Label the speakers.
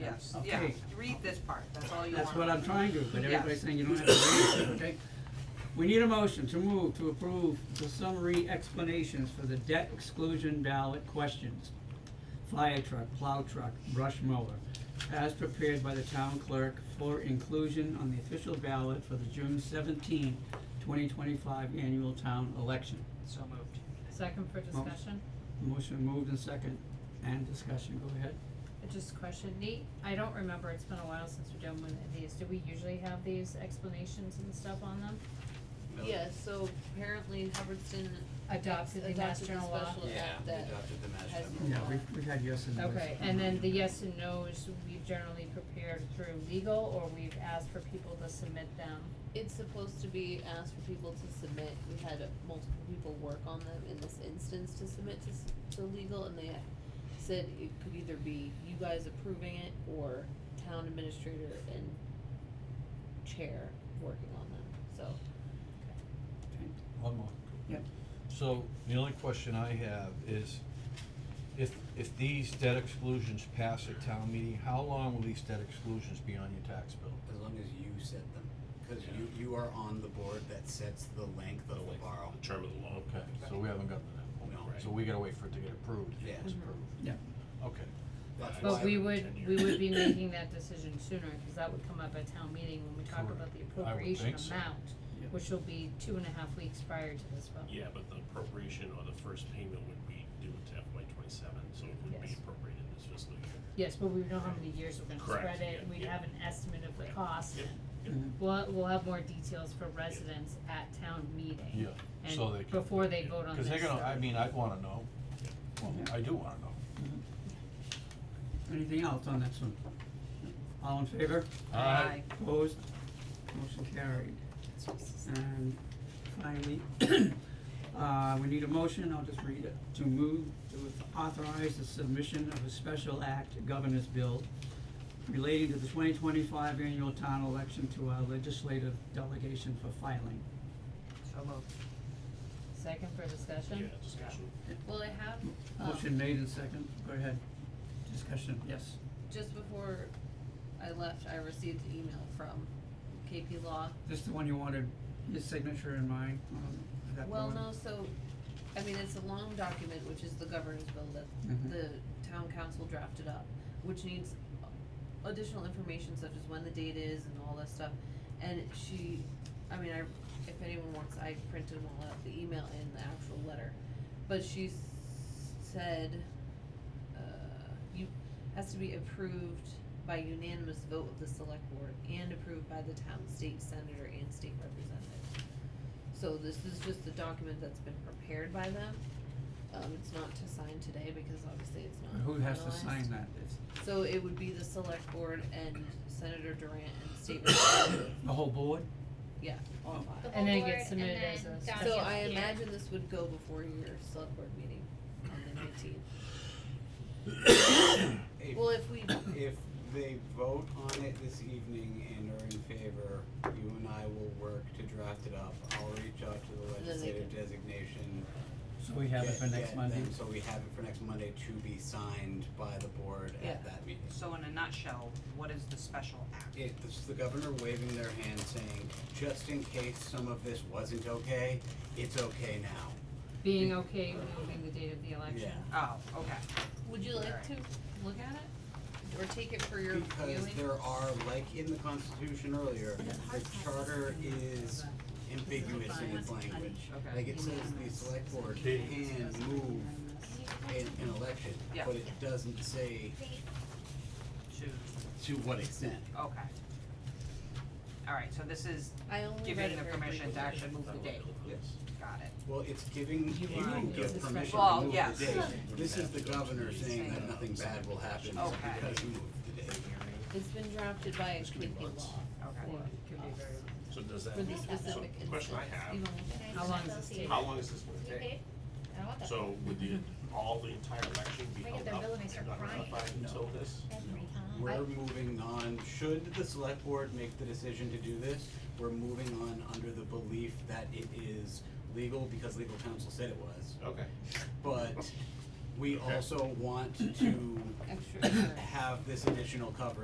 Speaker 1: yes, yeah,
Speaker 2: Okay.
Speaker 1: read this part, that's all you want.
Speaker 2: That's what I'm trying to, but
Speaker 1: Yes.
Speaker 2: everybody's saying you don't have to read it, okay? We need a motion to move to approve the summary explanations for the debt exclusion ballot questions. Fire truck, plow truck, brush mower, as prepared by the town clerk for inclusion on the official ballot for the June 17, 2025 annual town election.
Speaker 1: So moved.
Speaker 3: Second for discussion,
Speaker 2: Motion moved and second, and discussion, go ahead.
Speaker 3: Uh, just a question, Nate, I don't remember, it's been a while since we've done one of these, do we usually have these explanations and stuff on them?
Speaker 4: Yeah, so apparently Hubbardston
Speaker 3: Adopted the
Speaker 4: adopted the
Speaker 3: national law?
Speaker 4: special act that,
Speaker 5: adopted the
Speaker 4: has-
Speaker 5: master.
Speaker 2: Yeah, we, we had yes and no's.
Speaker 3: Okay, and then the yes and no's, we've generally prepared through legal, or we've asked for people to submit them?
Speaker 4: it's supposed to be asked for people to submit, we had multiple people work on them in this instance to submit to, s- to legal, and they said it could either be you guys approving it or town administrator and chair working on them, so.
Speaker 6: One more.
Speaker 2: Yep.
Speaker 6: So the only question I have is, if, if these debt exclusions pass at town meeting, how long will these debt exclusions be on your tax bill?
Speaker 5: As long as you set them, cause you, you are on the board that sets the length of the borrow.
Speaker 7: Oh, the term of the loan.
Speaker 6: Okay, so we haven't gotten to that
Speaker 5: No.
Speaker 6: point, so we gotta wait for it to get approved, if
Speaker 5: Yeah.
Speaker 6: it was approved.
Speaker 2: Mm-hmm. Yeah.
Speaker 6: Okay.
Speaker 5: That's
Speaker 3: But
Speaker 5: why-
Speaker 3: we would,
Speaker 7: ten
Speaker 3: we
Speaker 7: years.
Speaker 3: would be making that decision sooner, cause that would come up at town meeting when we talk
Speaker 6: Correct.
Speaker 3: about the
Speaker 6: I would
Speaker 3: appropriation
Speaker 6: think so.
Speaker 3: amount,
Speaker 2: Yep.
Speaker 3: which will be two and a half weeks prior to this vote.
Speaker 7: Yeah, but the appropriation or the first payment would be due to FY twenty-seven, so it would be
Speaker 3: Yes.
Speaker 7: appropriated this fiscal year.
Speaker 3: Yes, but we know how many years we're gonna
Speaker 7: Correct,
Speaker 3: spread it,
Speaker 7: yeah,
Speaker 3: we
Speaker 7: yeah.
Speaker 3: have an estimate of the
Speaker 7: Right.
Speaker 3: cost.
Speaker 7: Yep.
Speaker 2: Mhm.
Speaker 3: We'll, we'll have more details for residents at town meeting.
Speaker 6: Yeah, so
Speaker 3: And
Speaker 6: they can.
Speaker 3: before they vote on
Speaker 6: Cause they're
Speaker 3: this,
Speaker 6: gonna, I
Speaker 3: so-
Speaker 6: mean, I'd wanna know, well,
Speaker 2: Yeah.
Speaker 6: I do wanna know.
Speaker 2: Anything else on this one? All in favor?
Speaker 6: Aye.
Speaker 2: Opposed? Motion carried. And finally, uh, we need a motion, I'll just read it, to move to authorize the submission of a special act governor's bill relating to the twenty twenty-five annual town election to our legislative delegation for filing.
Speaker 1: So moved.
Speaker 3: Second for
Speaker 7: Yeah,
Speaker 3: discussion?
Speaker 7: discussion.
Speaker 4: Well, I have, um.
Speaker 2: Motion made and second, go ahead. Discussion, yes.
Speaker 4: just before I left, I received an email from KP Law.
Speaker 2: This the one you wanted, his signature and mine, um, that the
Speaker 4: Well,
Speaker 2: one?
Speaker 4: no, so, I mean, it's a long document, which is the governor's bill that
Speaker 2: Mhm.
Speaker 4: the town council drafted up, which needs additional information such as when the date is and all that stuff. And she, I mean, I, if anyone wants, I printed them all out, the email and the actual letter. But she s- said, uh, you, has to be approved by unanimous vote of the select board and approved by the town state senator and state representative. So this is just a document that's been prepared by them. Um, it's not to sign today because obviously it's not
Speaker 2: Who has to
Speaker 4: finalized.
Speaker 2: sign that? It's
Speaker 4: So it would be the select board and Senator Durant and state representative,
Speaker 2: the whole board?
Speaker 4: yeah,
Speaker 2: Oh.
Speaker 4: all five.
Speaker 3: And then it gets submitted as a special-
Speaker 4: So I imagine this would go before your select board meeting on the nineteenth.
Speaker 5: If-
Speaker 4: Well, if we,
Speaker 5: If they vote on it this evening and are in favor, you and I will work to draft it up. I'll reach out to the
Speaker 4: And then they
Speaker 5: legislative
Speaker 4: can-
Speaker 5: designation.
Speaker 2: So we have it for
Speaker 5: get-
Speaker 2: next
Speaker 5: get
Speaker 2: Monday?
Speaker 5: them, So we have it for next Monday to be signed by the board
Speaker 4: Yeah.
Speaker 5: at that meeting.
Speaker 1: So in a nutshell, what is the special act?
Speaker 5: It, this is the governor waving their hand saying, just in case some of this wasn't okay, it's okay now.
Speaker 3: Being okay with moving the date of the election?
Speaker 5: Yeah.
Speaker 1: Oh, okay.
Speaker 4: would you like to look at it or take it for your viewing?
Speaker 5: Because there are, like in the constitution earlier, the charter is ambiguous in its language.
Speaker 1: Okay.
Speaker 5: Like it says the select board can move an, an election,
Speaker 1: Yeah.
Speaker 5: but it doesn't say
Speaker 1: Two.
Speaker 5: to what extent.
Speaker 1: Okay. All right, so this is
Speaker 4: I only read
Speaker 1: giving
Speaker 4: it
Speaker 1: the
Speaker 4: very
Speaker 1: permission to
Speaker 4: briefly.
Speaker 1: actually move the date.
Speaker 5: Yes.
Speaker 1: Got it.
Speaker 5: Well, it's giving, you give permission
Speaker 1: Well,
Speaker 5: to move
Speaker 1: yes.
Speaker 5: the date. This is the governor saying that
Speaker 1: Saying-
Speaker 5: nothing bad will happen
Speaker 1: Okay.
Speaker 5: because you moved the date.
Speaker 4: It's been drafted by a committee law.
Speaker 1: Okay.
Speaker 7: So does that
Speaker 4: For the
Speaker 7: mean, so
Speaker 4: specific
Speaker 7: the question I
Speaker 4: instance,
Speaker 7: have,
Speaker 4: you don't-
Speaker 3: How long does this take?
Speaker 7: how long is this gonna take?
Speaker 8: I want that.
Speaker 7: So would the, all the entire election be
Speaker 8: They get
Speaker 7: held
Speaker 8: their
Speaker 7: up
Speaker 8: bill and they
Speaker 7: and
Speaker 8: start
Speaker 7: not
Speaker 8: crying.
Speaker 7: notified until this?
Speaker 8: Every time.
Speaker 5: We're moving on, should the select board make the decision to do this, we're moving on under the belief that it is legal because legal counsel said it was.
Speaker 7: Okay.
Speaker 5: But we also want to
Speaker 4: Extra.
Speaker 5: have this additional coverage